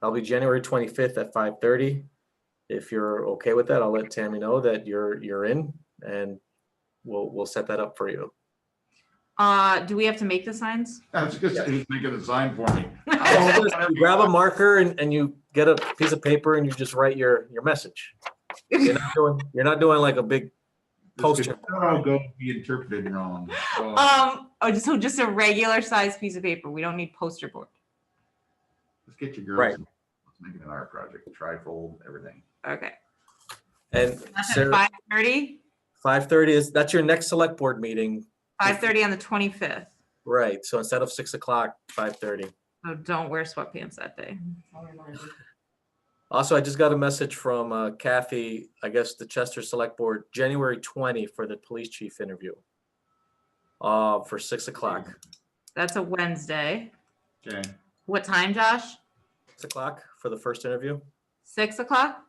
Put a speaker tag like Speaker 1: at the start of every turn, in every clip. Speaker 1: That'll be January twenty-fifth at five thirty. If you're okay with that, I'll let Tammy know that you're, you're in and we'll, we'll set that up for you.
Speaker 2: Uh, do we have to make the signs?
Speaker 3: I was just, just making a sign for me.
Speaker 1: You Grab a marker and, and you get a piece of paper and you just write your, your message. You're not doing, you're not doing like a big
Speaker 3: This
Speaker 1: poster.
Speaker 3: could somehow Go be interpreted wrong. so-
Speaker 2: Um, oh, so just a regular sized piece of paper. We don't need poster board.
Speaker 3: Let's get your
Speaker 1: Right.
Speaker 3: girls. and Let's make it an art project, trifold, everything.
Speaker 2: Okay.
Speaker 1: And
Speaker 2: That's at
Speaker 1: Sarah,
Speaker 2: five thirty,
Speaker 1: five thirty is, that's your next select board meeting,
Speaker 2: five thirty on the twenty-fifth.
Speaker 1: right? So instead of six o'clock, five thirty.
Speaker 2: So don't wear sweatpants that day.
Speaker 1: Also, I just got a message from uh, Kathy, I guess the Chester Select Board, January 20 for the police chief interview. Uh, for six o'clock,
Speaker 2: That's a Wednesday.
Speaker 3: Okay,
Speaker 2: What time, Josh?
Speaker 1: six o'clock for the first interview.
Speaker 2: Six o'clock?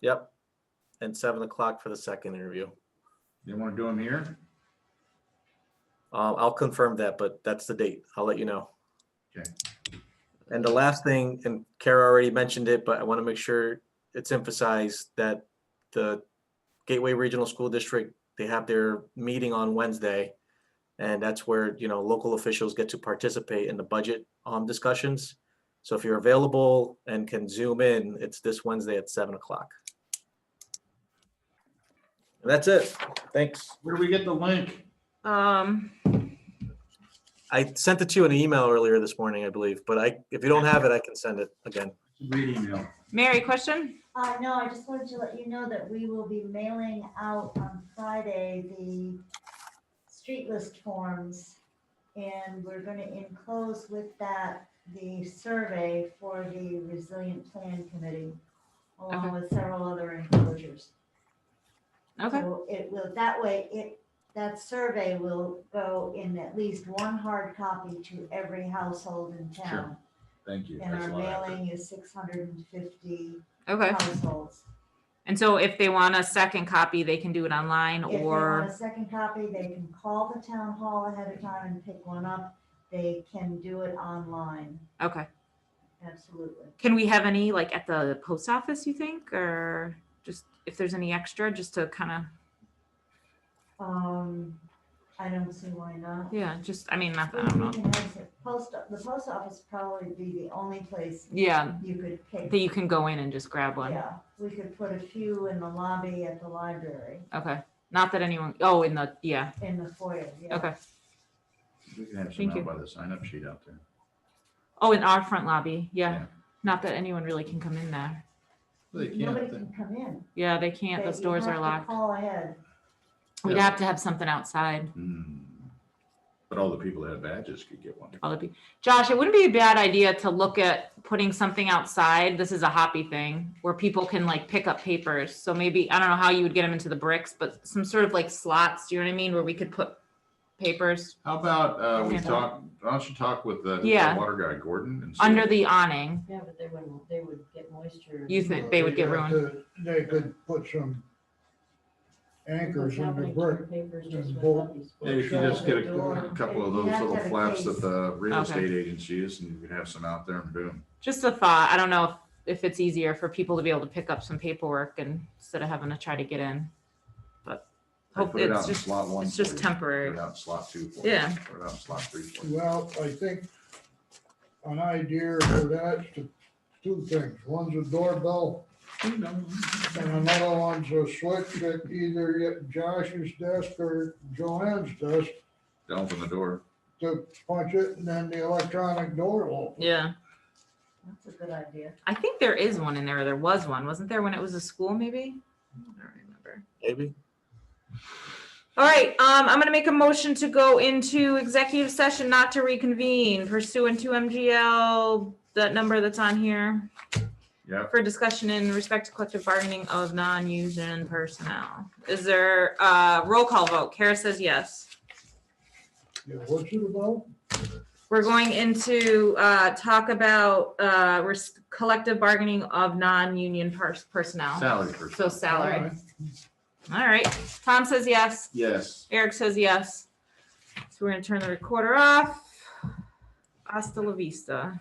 Speaker 1: Yep. And seven o'clock for the second interview.
Speaker 3: you want to do them here?
Speaker 1: Um, I'll confirm that, but that's the date. I'll let you know.
Speaker 3: Okay.
Speaker 1: And the last thing, and Kara already mentioned it, but I want to make sure it's emphasized that the Gateway Regional School District, they have their meeting on Wednesday. And that's where, you know, local officials get to participate in the budget um discussions. So if you're available and can zoom in, it's this Wednesday at seven o'clock. And that's it. Thanks.
Speaker 3: Where do we get the link?
Speaker 2: Um,
Speaker 1: I sent it to you in an email earlier this morning, I believe, but I, if you don't have it, I can send it again.
Speaker 3: Read email.
Speaker 2: Mary, question?
Speaker 4: Uh, no, I just wanted to let you know that we will be mailing out on Friday the street list forms. And we're gonna enclose with that the survey for the resilient plan committee,
Speaker 2: Okay.
Speaker 4: along with several other enclosures.
Speaker 2: Okay,
Speaker 4: So It will, that way, it, that survey will go in at least one hard copy to every household in
Speaker 3: Sure.
Speaker 4: town.
Speaker 3: Thank you.
Speaker 4: And
Speaker 3: That's
Speaker 4: our
Speaker 3: a lot of effort.
Speaker 4: mailing is six hundred and fifty
Speaker 2: okay.
Speaker 4: households.
Speaker 2: And so if they want a second copy, they can do it online
Speaker 4: If they want a
Speaker 2: or,
Speaker 4: second copy, they can call the town hall ahead of time and pick one up. They can do it online,
Speaker 2: okay.
Speaker 4: absolutely.
Speaker 2: Can we have any like at the post office, you think, or just if there's any extra, just to kind of,
Speaker 4: Um, I don't see why not.
Speaker 2: yeah, just, I mean, not that, I don't
Speaker 4: We
Speaker 2: know.
Speaker 4: can have the Post, the post office probably be the only place
Speaker 2: Yeah,
Speaker 4: you could
Speaker 2: that
Speaker 4: pick.
Speaker 2: you can go in and just grab one.
Speaker 4: Yeah, we could put a few in the lobby at the library,
Speaker 2: Okay. Not that anyone, oh, in the, yeah,
Speaker 4: in the foyer, yeah.
Speaker 2: okay.
Speaker 3: We can have some
Speaker 2: Thank you.
Speaker 3: out by the sign up sheet out there.
Speaker 2: Oh, in our front lobby.
Speaker 3: Yeah.
Speaker 2: Yeah. Not that anyone really can come in there.
Speaker 3: They
Speaker 4: Nobody
Speaker 3: can't,
Speaker 4: can come in.
Speaker 2: Yeah, they can't.
Speaker 4: They-
Speaker 2: Those
Speaker 4: you
Speaker 2: doors
Speaker 4: have
Speaker 2: are
Speaker 4: to
Speaker 2: locked.
Speaker 4: Call ahead.
Speaker 2: We'd
Speaker 3: Yeah.
Speaker 2: have to have something outside.
Speaker 3: Hmm. But all the people that have badges could get one.
Speaker 2: All the pe- Josh, it wouldn't be a bad idea to look at putting something outside. This is a hoppy thing where people can like pick up papers. So maybe, I don't know how you would get them into the bricks, but some sort of like slots, do you know what I mean? Where we could put papers
Speaker 3: How about, uh, we
Speaker 2: Yeah.
Speaker 3: talk, why don't you talk with the the
Speaker 2: Yeah.
Speaker 3: water guy, Gordon? and see-
Speaker 2: under the awning.
Speaker 5: Yeah, but they wouldn't, they would get moisture.
Speaker 2: You think they would get
Speaker 6: They'd have
Speaker 2: ruined?
Speaker 6: to- They could put some anchors in the brick. and bolt.
Speaker 3: Maybe you can just get a
Speaker 4: Door.
Speaker 3: couple of those
Speaker 4: You have to
Speaker 3: little
Speaker 4: have a
Speaker 3: flaps that
Speaker 4: case.
Speaker 3: the real
Speaker 2: Okay.
Speaker 3: estate agency is and you could have some out there and boom.
Speaker 2: Just a thought. I don't know if, if it's easier for people to be able to pick up some paperwork and instead of having to try to get in. But
Speaker 3: Or
Speaker 2: hope
Speaker 3: put it out
Speaker 2: it's
Speaker 3: in
Speaker 2: just,
Speaker 3: slot one
Speaker 2: it's
Speaker 3: for
Speaker 2: just
Speaker 3: you.
Speaker 2: temporary.
Speaker 3: Put it out in slot two. for you.
Speaker 2: Yeah.
Speaker 3: Put it out in slot three. for you.
Speaker 6: Well, I think an idea for that's to, two things. One's a doorbell and another one's a switch that either at Josh's desk or Joanne's desk
Speaker 3: To open the door.
Speaker 6: to punch it and then the electronic door will open.
Speaker 2: Yeah.
Speaker 4: That's a good idea.
Speaker 2: I think there is one in there. or There was one, wasn't there, when it was a school, maybe? I don't remember.
Speaker 1: Maybe.
Speaker 2: All right, um, I'm gonna make a motion to go into executive session not to reconvene pursuant to MGL, that number that's on here,
Speaker 3: Yeah.
Speaker 2: for discussion in respect to collective bargaining of non-union personnel. Is there a roll call vote? Kara says yes.
Speaker 6: Yeah, What's it about?
Speaker 2: We're going into, uh, talk about, uh, res- collective bargaining of non-union pers- personnel,
Speaker 3: Salary first.
Speaker 2: so salary. All right, Tom says yes.
Speaker 3: Yes.
Speaker 2: Eric says yes. So we're gonna turn the recorder off. Hasta la vista.